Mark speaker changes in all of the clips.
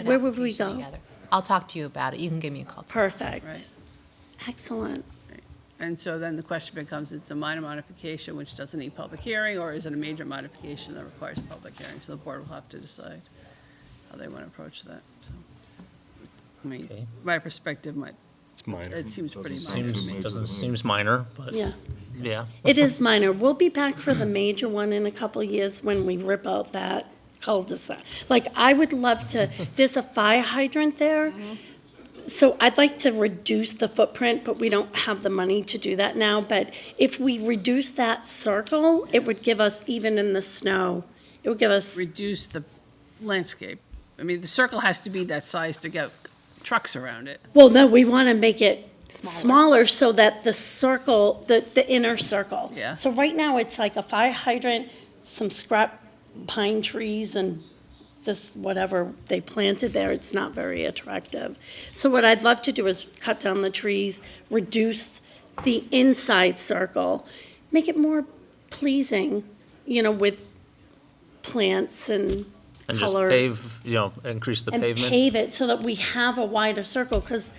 Speaker 1: an
Speaker 2: Where would we
Speaker 1: application
Speaker 2: go?
Speaker 1: together. I'll talk to you about it. You can give me a call.
Speaker 2: Perfect.
Speaker 3: Right.
Speaker 2: Excellent.
Speaker 3: And so then the question becomes, it's a minor modification which doesn't need public hearing, or is it a major modification that requires public hearing? So the board will have to decide how they want to approach that, so. I
Speaker 4: Okay.
Speaker 3: mean, my perspective might,
Speaker 5: It's minor.
Speaker 3: it seems pretty minor.
Speaker 4: Seems, doesn't, seems minor, but
Speaker 2: Yeah.
Speaker 4: yeah.
Speaker 2: It is minor. We'll be back for the major one in a couple of years when we rip out that cul-de-sac. Like, I would love to, there's a fire hydrant there. So I'd like to reduce the footprint, but we don't have the money to do that now. But if we reduce that circle, it would give us, even in the snow, it would give us,
Speaker 3: Reduce the landscape. I mean, the circle has to be that size to get trucks around it.
Speaker 2: well, no, we want to make it smaller so that the circle, the, the inner circle.
Speaker 3: Yeah.
Speaker 2: So right now, it's like a fire hydrant, some scrap pine trees and this, whatever they planted there, it's not very attractive. So what I'd love to do is cut down the trees, reduce the inside circle, make it more pleasing, you know, with plants and
Speaker 4: And just
Speaker 2: color.
Speaker 4: pave, you know, increase the
Speaker 2: and
Speaker 4: pavement.
Speaker 2: pave it so that we have a wider circle, because,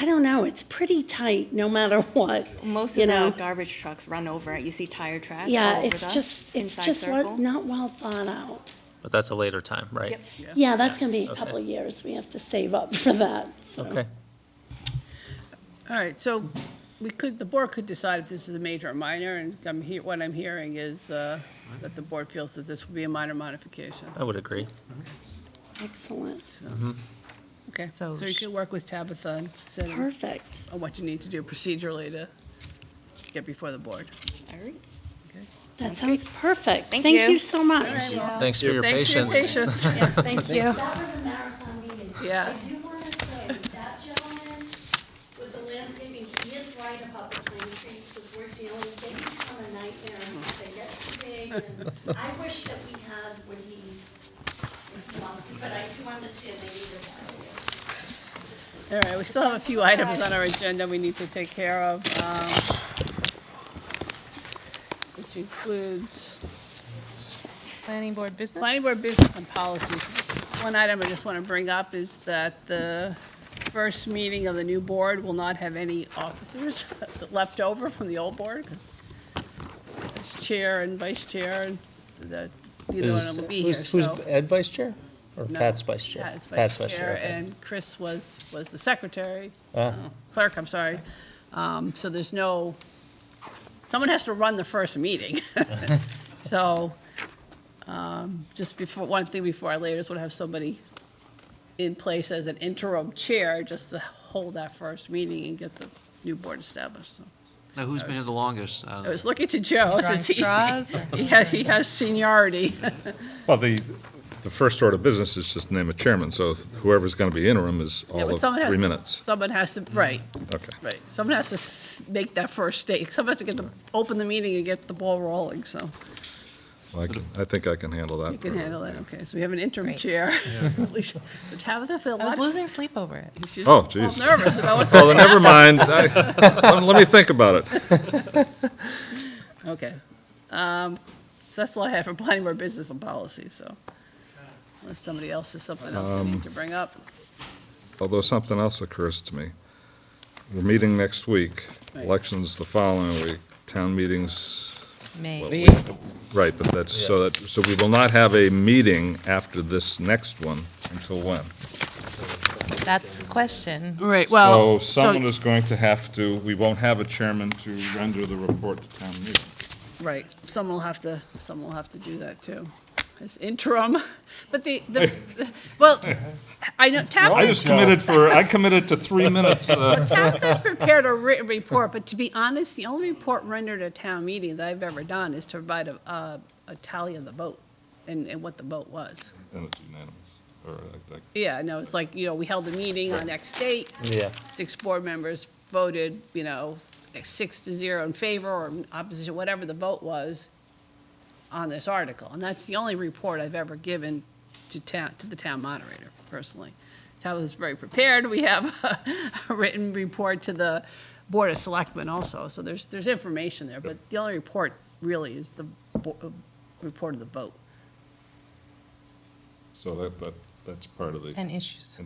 Speaker 2: I don't know, it's pretty tight no matter what.
Speaker 6: Most
Speaker 2: you
Speaker 6: of
Speaker 2: know?
Speaker 6: the garbage trucks run over it. You see tire tracks all
Speaker 2: Yeah,
Speaker 6: over
Speaker 2: it's
Speaker 6: the
Speaker 2: just, it's
Speaker 6: inside
Speaker 2: just
Speaker 6: circle.
Speaker 2: what- not well thought out.
Speaker 4: But that's a later time, right?
Speaker 2: Yeah, that's gonna be a
Speaker 4: Okay.
Speaker 2: couple of years. We have to save up for that, so.
Speaker 4: Okay.
Speaker 3: All right, so we could, the board could decide if this is a major or minor, and I'm he, what I'm hearing is, uh, that the board feels that this would be a minor modification,
Speaker 4: I would agree.
Speaker 2: Excellent.
Speaker 3: so. Okay, Mm-hmm. so
Speaker 1: So
Speaker 3: you
Speaker 1: sh-
Speaker 3: could work with Tabitha and send
Speaker 2: Perfect.
Speaker 3: on what you need to do procedurally to get before the board.
Speaker 6: All right.
Speaker 2: That sounds perfect.
Speaker 6: Thank
Speaker 2: Thank
Speaker 6: you.
Speaker 2: you so much.
Speaker 4: Thanks for your
Speaker 3: Thanks for your
Speaker 4: patience.
Speaker 3: patience.
Speaker 1: Yes, thank you.
Speaker 7: That was a marathon meeting.
Speaker 3: Yeah.
Speaker 7: I do want to say, that gentleman with the landscaping, he is right about the pine trees, because we're dealing, they become a nightmare, and they get too big, and I wish that we had what he wants, but I do understand they need it earlier.
Speaker 3: All right, we still have a few items on our agenda we need to take care of, um, which includes
Speaker 1: Planning board business?
Speaker 3: planning board business and policies. One item I just want to bring up is that the first meeting of the new board will not have any officers left over from the old board, because it's chair and vice chair, and that, neither one of them will be here,
Speaker 4: Who's
Speaker 3: so.
Speaker 4: who's Ed vice chair? Or
Speaker 3: No.
Speaker 4: Pat's vice chair?
Speaker 3: Pat is vice chair,
Speaker 4: okay.
Speaker 3: and Chris was, was the secretary, uh,
Speaker 4: Ah.
Speaker 3: clerk, I'm sorry. Um, So there's no, someone has to run the first meeting. So um, just before, one thing before I leave, I just want to have somebody in place as an interim chair, just to hold that first meeting and get the new board established, so.
Speaker 8: Now, who's been here the longest? uh, out of
Speaker 3: I
Speaker 8: the-
Speaker 3: was
Speaker 5: Uh-huh.
Speaker 3: looking to Joe,
Speaker 1: Drawing
Speaker 3: since he,
Speaker 1: straws? or-
Speaker 3: he has- he has seniority.
Speaker 5: Well, the, the first order of business is just name a chairman, so whoever's going to be interim is
Speaker 3: Yeah,
Speaker 5: all
Speaker 3: but
Speaker 5: of
Speaker 3: someone has
Speaker 5: three
Speaker 3: to-
Speaker 5: minutes.
Speaker 3: Someone has to, right,
Speaker 5: Okay.
Speaker 3: Right, someone has to s- make that first stake, someone has to get the, open the meeting and get the ball rolling, so
Speaker 5: Well, I can- I think I can handle that.
Speaker 3: you can
Speaker 5: pretty
Speaker 3: handle
Speaker 5: well.
Speaker 3: that, okay, so we have an interim
Speaker 1: Great.
Speaker 3: chair. At least, so Tabitha feel a
Speaker 1: I was
Speaker 3: lot,
Speaker 1: losing sleep over it.
Speaker 3: she's
Speaker 5: Oh,
Speaker 3: all
Speaker 5: geez.
Speaker 3: nervous about what's,
Speaker 5: Oh, then never mind. I- Let let me think about it.
Speaker 3: okay. Um, So that's all I have for planning board business and policy, so unless somebody else has something else they
Speaker 5: Um,
Speaker 3: need to bring up,
Speaker 5: Although something else occurs to me. We're meeting next week,
Speaker 3: Right.
Speaker 5: elections the following week, town meetings,
Speaker 1: May.
Speaker 5: right, but that's, so that, so we will not have a meeting after this next one until when?
Speaker 1: That's the question.
Speaker 3: Right,
Speaker 5: So
Speaker 3: well,
Speaker 5: someone
Speaker 3: so,
Speaker 5: is going to have to, we won't have a chairman to render the report to town meeting.
Speaker 3: right, someone will have to, someone will have to do that too, as interim, but the, the, well, I know
Speaker 5: I
Speaker 3: Tabitha's
Speaker 5: just committed for, I committed to three minutes. uh,
Speaker 3: Tabitha's prepared a written report, but to be honest, the only report rendered at town meeting that I've ever done is to provide a, a, a tally of the vote and, and what the vote was.
Speaker 5: And it's unanimous, or I think.
Speaker 3: Yeah, no, it's like, you know, we held a meeting on X date,
Speaker 4: Yeah.
Speaker 3: six board members voted, you know, six to zero in favor or opposition, whatever the vote was on this article. And that's the only report I've ever given to town, to the town moderator personally. Tabitha's very prepared. We have a written report to the Board of Selectmen also, so there's, there's information there. But the only report really is the bo- uh, report of the vote.
Speaker 5: So that, that,
Speaker 9: that's part of the.
Speaker 5: and issues.